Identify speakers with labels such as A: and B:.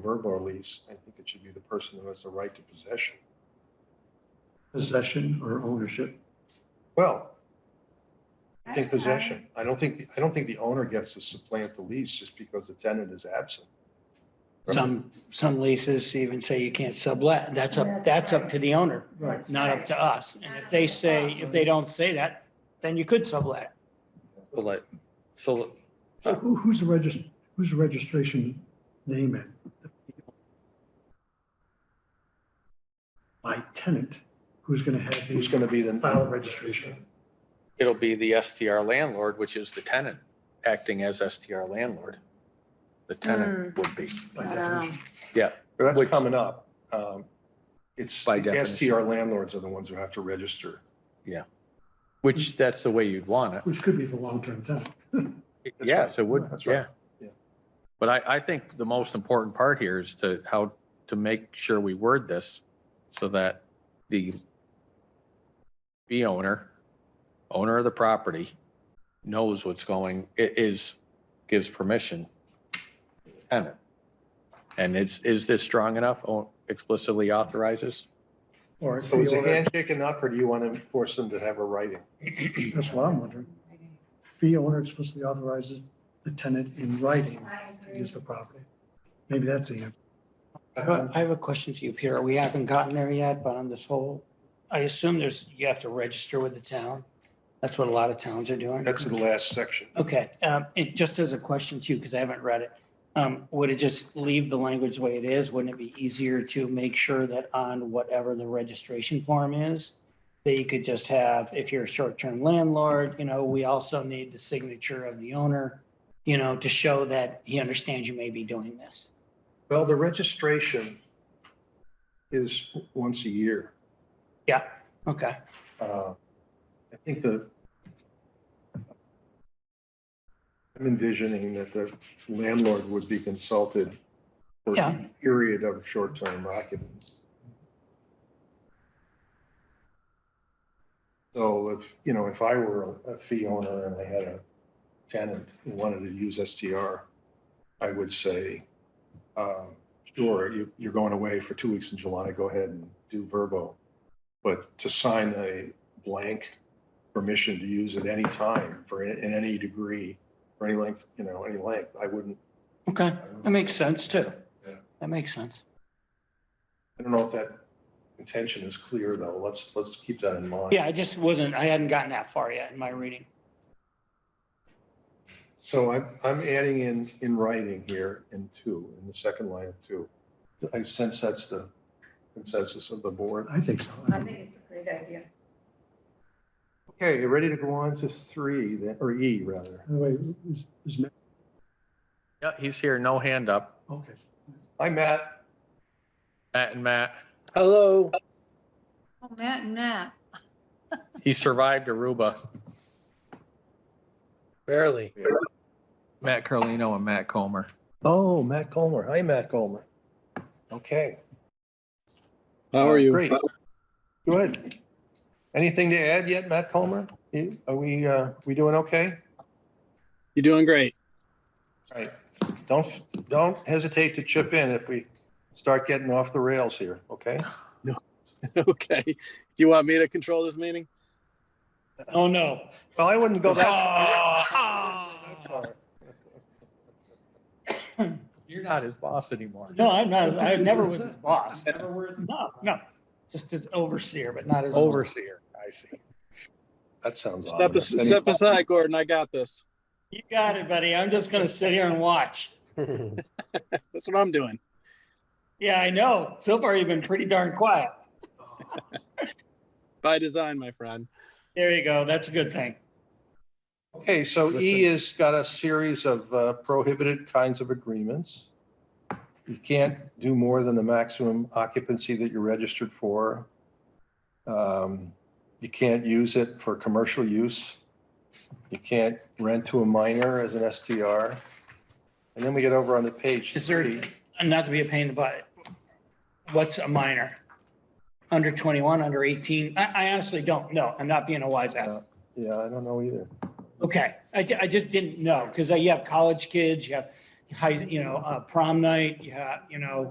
A: verb or lease, I think it should be the person who has the right to possession.
B: possession or ownership.
A: Well, I think
C: don't know.
A: possession. I don't think, I don't think the owner gets to supplant the lease just because the tenant is absent.
D: Some, some leases even say you can't sublet. That's up,
C: That's
D: that's up
C: right.
D: to the owner,
C: That's
D: not up
C: right.
D: to us. And
C: Not
D: if
C: up
D: they
C: to
D: say,
C: us.
D: if they don't say that, then you could sublet.
E: So like, so
B: So who, who's the regist, who's the registration name in? My tenant, who's gonna have
A: Who's
B: these
A: going to be the?
B: file registration?
E: it'll be the STR landlord, which is the tenant, acting as STR landlord. The tenant would be,
B: by
C: I don't
B: definition?
C: know.
A: Well, That's
E: Which-
A: coming up. Um, It's,
E: By
A: the
E: definition.
A: STR landlords are the ones who have to register.
E: which that's the way you'd want it.
B: Which could be the long-term tenant.
A: That's
E: Yes, it would,
A: That's
E: yeah.
A: right. Yeah.
E: But I, I think the most important part here is to how, to make sure we word this so that the the owner, owner of the property knows what's going, it is, gives permission. to the Tenant. And it's, is this strong enough? Oh, Explicitly authorizes?
B: Or if
A: So is
B: the
A: a
B: owner,
A: handshake enough or do you want to force them to have a writing?
B: that's what I'm wondering. Fee owner explicitly authorizes the tenant in writing
C: I
B: to
C: agree.
B: use the property. Maybe that's the answer.
D: I have a- I have a question for you, Peter. We haven't gotten there yet, but on this whole, I assume there's, you have to register with the town. That's what a lot of towns are doing.
A: That's the last section.
D: Okay, um, it just as a question too, because I haven't read it. Um, would it just leave the language the way it is? Wouldn't it be easier to make sure that on whatever the registration form is? That you could just have, if you're a short-term landlord, you know, we also need the signature of the owner, you know, to show that he understands you may be doing this.
A: Well, the registration is once a year.
D: Okay,
A: Uh, I think the I'm envisioning that the landlord would be consulted for
D: Yeah.
A: a period of short-term occupancy. So if, you know, if I were a fee owner and I had a tenant who wanted to use STR, I would say, um, sure, you, you're going away for two weeks in July, go ahead and do verbo. But to sign a blank permission to use at any time for, in in any degree, for any length, you know, any length, I wouldn't.
D: okay,
A: I wouldn't-
D: that makes sense too.
A: Yeah.
D: That makes sense.
A: I don't know if that intention is clear though. Let's, let's keep that in mind.
D: Yeah, I just wasn't, I hadn't gotten that far yet in my reading.
A: So I'm, I'm adding in, in writing here in two, in the second line of two. I sense that's the consensus of the board.
B: I think so.
C: I think it's a great idea.
A: Okay, you ready to go on to three, then, or E rather?
B: By the way, is, is, Matt-
E: Yeah, he's here, no hand up.
B: okay.
A: Hi, Matt.
E: Matt and Matt,
F: Hello,
C: Oh, Matt and Matt.
E: he survived Aruba.
F: barely.
E: Matt Carlino and Matt Comer.
A: Oh, Matt Colmer. Hi, Matt Colmer. Okay.
F: How are you?
A: Great. Good. Anything to add yet, Matt Colmer? You- Are we, uh, we doing okay?
F: You're doing great.
A: Right. Don't, don't hesitate to chip in if we start getting off the rails here, okay?
F: Okay. You want me to control this meeting?
D: Oh, no.
A: Well, I wouldn't go that.
D: Oh.
E: You're not his boss anymore.
D: No, I'm not, I never was his boss. No, no, just as overseer, but not as.
E: Overseer, I see.
A: That sounds
F: Step,
A: ominous.
F: as- step aside, Gordon. I got this.
D: You got it, buddy. I'm just gonna sit here and watch.
F: That's what I'm doing.
D: Yeah, I know. So far, you've been pretty darn quiet.
F: By design, my friend.
D: There you go. That's a good thing.
A: Okay, so E has got a series of uh, prohibited kinds of agreements. You can't do more than the maximum occupancy that you're registered for. Um, You can't use it for commercial use. You can't rent to a minor as an STR. And then we get over on the page
D: Is there-
A: thirty.
D: And not to be a pain in the butt. What's a minor? Under twenty-one, under eighteen? I, I honestly don't know. I'm not being a wise ass.
A: Yeah, I don't know either.
D: Okay, I, ju- I just didn't know, because you have uh, college kids, you have, high, you know, uh, prom night, you have, you know,